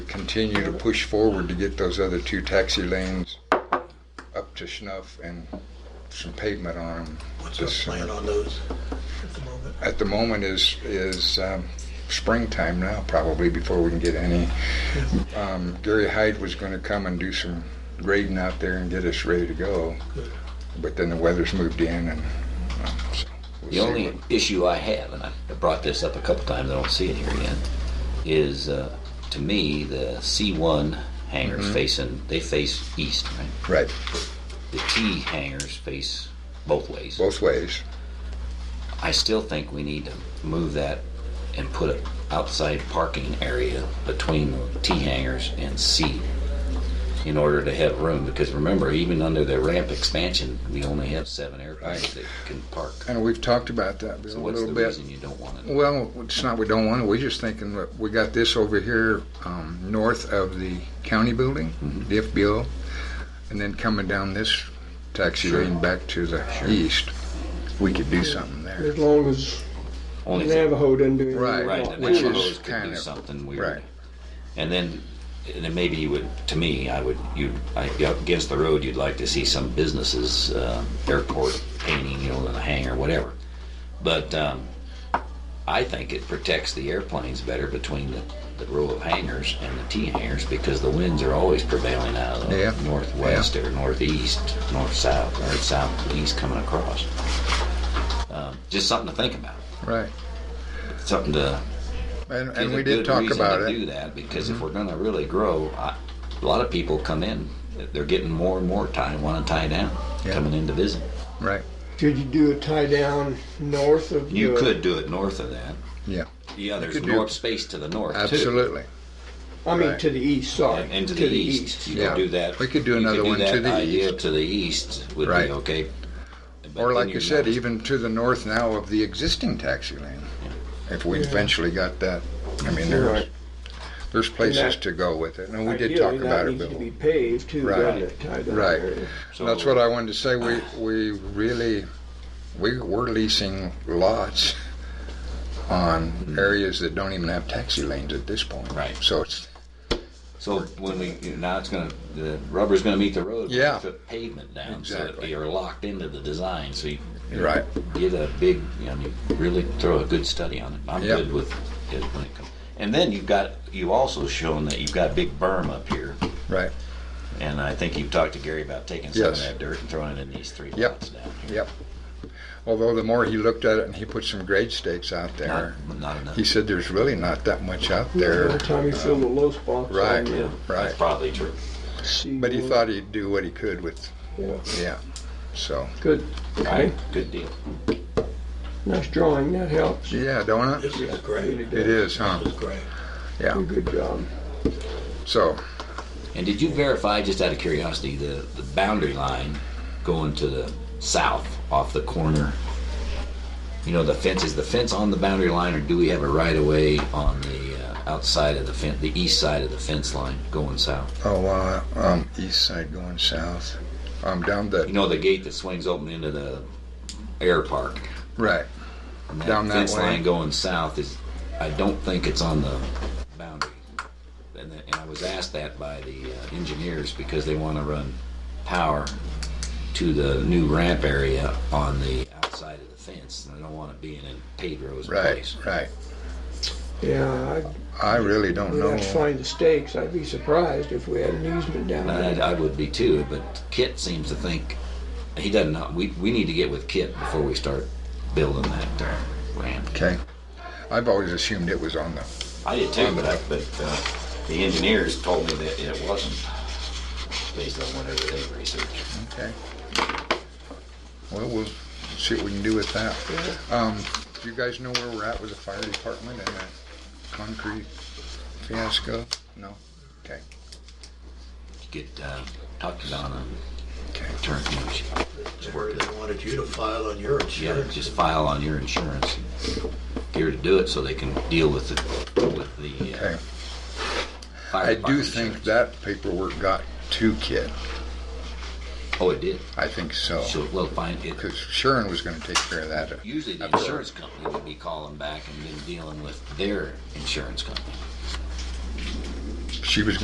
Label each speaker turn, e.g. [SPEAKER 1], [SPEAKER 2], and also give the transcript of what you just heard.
[SPEAKER 1] continue to push forward to get those other two taxi lanes up to snuff and some pavement on them.
[SPEAKER 2] What's our plan on those at the uh, moment?
[SPEAKER 1] At the moment is, is um, springtime now, probably, before we can get any. Um, Gary Hyde was gonna come and do some grading out there and get us ready to go,
[SPEAKER 2] Good.
[SPEAKER 1] but then the weather's moved in and, um, so. we'll
[SPEAKER 3] The
[SPEAKER 1] see
[SPEAKER 3] only
[SPEAKER 1] what-
[SPEAKER 3] issue I have, and I brought this up a couple times, I don't see it here yet, is uh, to me the C1 hangars facing they face east, right?
[SPEAKER 1] Right,
[SPEAKER 3] The T hangars face both ways.
[SPEAKER 1] both ways.
[SPEAKER 3] I still think we need to move that and put an outside parking area between T hangers and C in order to have room. Because remember, even under the ramp expansion, we only have seven airplanes that can park.
[SPEAKER 1] And we've talked about that Bill,
[SPEAKER 3] So
[SPEAKER 1] a
[SPEAKER 3] what's the
[SPEAKER 1] little bit.
[SPEAKER 3] reason you don't want it?
[SPEAKER 1] Well, it's not we don't want it. We're just thinking that we got this over here um, north of the county building,
[SPEAKER 3] Mm-hmm.
[SPEAKER 1] the FBO, and then coming down this taxi lane back to the east. We could do something there.
[SPEAKER 4] As long as
[SPEAKER 3] Only thing-
[SPEAKER 4] Navajo doesn't do anything.
[SPEAKER 1] Right.
[SPEAKER 3] Right, the
[SPEAKER 1] Which is
[SPEAKER 3] Navajos could
[SPEAKER 1] kind
[SPEAKER 3] do
[SPEAKER 1] of-
[SPEAKER 3] something
[SPEAKER 1] right.
[SPEAKER 3] weird. And then, and then maybe you would, to me, I would, you, I, out against the road, you'd like to see some businesses, uh, airport painting, you know, in a hangar, whatever. But, um, I think it protects the airplanes better between the, the row of hangars and the T hangars because the winds are always prevailing out of the
[SPEAKER 1] Yeah.
[SPEAKER 3] northwest or northeast, north south, or southeast coming across. Um, just something to think about.
[SPEAKER 1] Right.
[SPEAKER 3] Something to
[SPEAKER 1] And,
[SPEAKER 3] is
[SPEAKER 1] and
[SPEAKER 3] a
[SPEAKER 1] we did
[SPEAKER 3] good
[SPEAKER 1] talk
[SPEAKER 3] reason
[SPEAKER 1] about
[SPEAKER 3] to Do
[SPEAKER 1] it. Mm-hmm.
[SPEAKER 3] that because if we're going to really grow, I, a lot of people come in. They're getting more and more tied, want to tie down,
[SPEAKER 1] Yeah.
[SPEAKER 3] coming in to visit.
[SPEAKER 1] Right.
[SPEAKER 4] Could you do a tie down north of?
[SPEAKER 3] You
[SPEAKER 4] the-
[SPEAKER 3] could do it north of that.
[SPEAKER 1] Yeah.
[SPEAKER 3] Yeah, there's
[SPEAKER 1] could do-
[SPEAKER 3] north space to the north too.
[SPEAKER 1] Absolutely.
[SPEAKER 4] I mean,
[SPEAKER 1] right.
[SPEAKER 4] to the east. Sorry.
[SPEAKER 3] And, and to, the, east, you
[SPEAKER 1] Yeah.
[SPEAKER 3] could do that.
[SPEAKER 1] We could do
[SPEAKER 3] you
[SPEAKER 1] another one
[SPEAKER 3] that
[SPEAKER 1] to the
[SPEAKER 3] idea
[SPEAKER 1] east.
[SPEAKER 3] To the east would
[SPEAKER 1] Right.
[SPEAKER 3] be okay. But
[SPEAKER 1] Or
[SPEAKER 3] then
[SPEAKER 1] like
[SPEAKER 3] you're
[SPEAKER 1] you said,
[SPEAKER 3] not-
[SPEAKER 1] even to the north now of the existing taxi lane. If we
[SPEAKER 4] Yeah.
[SPEAKER 1] eventually got that, I mean,
[SPEAKER 4] You're
[SPEAKER 1] there's,
[SPEAKER 4] right.
[SPEAKER 1] there's places
[SPEAKER 4] that-
[SPEAKER 1] to go with it. And we did talk
[SPEAKER 4] Ideally,
[SPEAKER 1] about it,
[SPEAKER 4] That needs to
[SPEAKER 1] Bill.
[SPEAKER 4] be paved too,
[SPEAKER 1] Right.
[SPEAKER 4] doesn't it? Tie down
[SPEAKER 1] Right.
[SPEAKER 4] area.
[SPEAKER 3] so
[SPEAKER 1] That's what I wanted to say. We we really we we're leasing lots on areas that don't even have taxi lanes at this point.
[SPEAKER 3] Mm-hmm. Right.
[SPEAKER 1] So it's
[SPEAKER 3] So when we now it's going to the rubber's going to meet the road. We
[SPEAKER 1] Yeah.
[SPEAKER 3] Put pavement down so that
[SPEAKER 1] Exactly.
[SPEAKER 3] you're locked into the design. So you
[SPEAKER 1] right.
[SPEAKER 3] Get a big, you know, you really throw a good study on it. I'm
[SPEAKER 1] Yeah.
[SPEAKER 3] good with it when it comes. And then you've got, you've also shown that you've got big berm up here.
[SPEAKER 1] Right.
[SPEAKER 3] And I think you've talked to Gary about taking some of
[SPEAKER 1] Yes.
[SPEAKER 3] that dirt and throwing it in these three
[SPEAKER 1] Yep.
[SPEAKER 3] lots down here.
[SPEAKER 1] Yep. Although the more he looked at it and he put some grade stakes out there,
[SPEAKER 3] Not, not enough.
[SPEAKER 1] he said there's really not that much out
[SPEAKER 4] Every
[SPEAKER 1] there.
[SPEAKER 4] time you fill the low spots.
[SPEAKER 1] Right.
[SPEAKER 4] on the
[SPEAKER 3] That's
[SPEAKER 1] Right.
[SPEAKER 3] probably true.
[SPEAKER 4] sea
[SPEAKER 1] But he
[SPEAKER 4] wall.
[SPEAKER 1] thought he'd do what he could with
[SPEAKER 4] Yeah.
[SPEAKER 1] yeah. So
[SPEAKER 4] Good. Okay.
[SPEAKER 3] Good deal.
[SPEAKER 4] Nice drawing. That helps.
[SPEAKER 1] yeah, don't it?
[SPEAKER 2] This is great.
[SPEAKER 1] It is, huh?
[SPEAKER 2] This is great.
[SPEAKER 1] Yeah.
[SPEAKER 4] Good job.
[SPEAKER 1] So
[SPEAKER 3] And did you verify, just out of curiosity, the, the boundary line going to the south off the corner? You know, the fence, is the fence on the boundary line or do we have a right of way on the uh, outside of the fence, the east side of the fence line going south?
[SPEAKER 1] oh uh, um east side going south. Um down
[SPEAKER 3] You
[SPEAKER 1] the
[SPEAKER 3] know, the gate that swings open into the air park?
[SPEAKER 1] right.
[SPEAKER 3] And
[SPEAKER 1] Down that
[SPEAKER 3] fence
[SPEAKER 1] way.
[SPEAKER 3] line going south is, I don't think it's on the boundary. And, the- and I was asked that by the uh, engineers because they want to run power to the new ramp area on the outside of the fence. And I don't want to be in a paved road's
[SPEAKER 1] Right,
[SPEAKER 3] place.
[SPEAKER 1] right.
[SPEAKER 4] Yeah. I'd,
[SPEAKER 1] I really don't
[SPEAKER 4] we'd
[SPEAKER 1] know.
[SPEAKER 4] have to find the stakes. I'd be surprised if we had an easement down
[SPEAKER 3] And
[SPEAKER 4] there.
[SPEAKER 3] I, I would be too, but Kit seems to think, he doesn't know, we, we need to get with Kit before we start building that uh, ramp.
[SPEAKER 1] Okay. I've always assumed it was on the.
[SPEAKER 3] I did too, but, I, but uh, the engineers told me that it wasn't based on whatever they researched.
[SPEAKER 1] Okay. Well, we'll see what we can do with that. Um, do you guys know where we're at with the fire department and that concrete fiasco? No? Okay.
[SPEAKER 3] Get uh, talked to Donna,
[SPEAKER 1] Okay.
[SPEAKER 3] turn she-
[SPEAKER 2] Jerry, they wanted you to file on your
[SPEAKER 3] yeah,
[SPEAKER 2] insurance.
[SPEAKER 3] just file on your insurance. Get her to do it so they can deal with the with the. Uh,
[SPEAKER 1] Okay.
[SPEAKER 3] fire
[SPEAKER 1] I do
[SPEAKER 3] department
[SPEAKER 1] think
[SPEAKER 3] insurance.
[SPEAKER 1] that paperwork got to Kid.
[SPEAKER 3] Oh, it did.
[SPEAKER 1] I think so.
[SPEAKER 3] So well, fine. It,
[SPEAKER 1] Because Sharon was going to take care of that.
[SPEAKER 3] usually the insurance company would be calling back and then dealing with their insurance company.
[SPEAKER 1] she was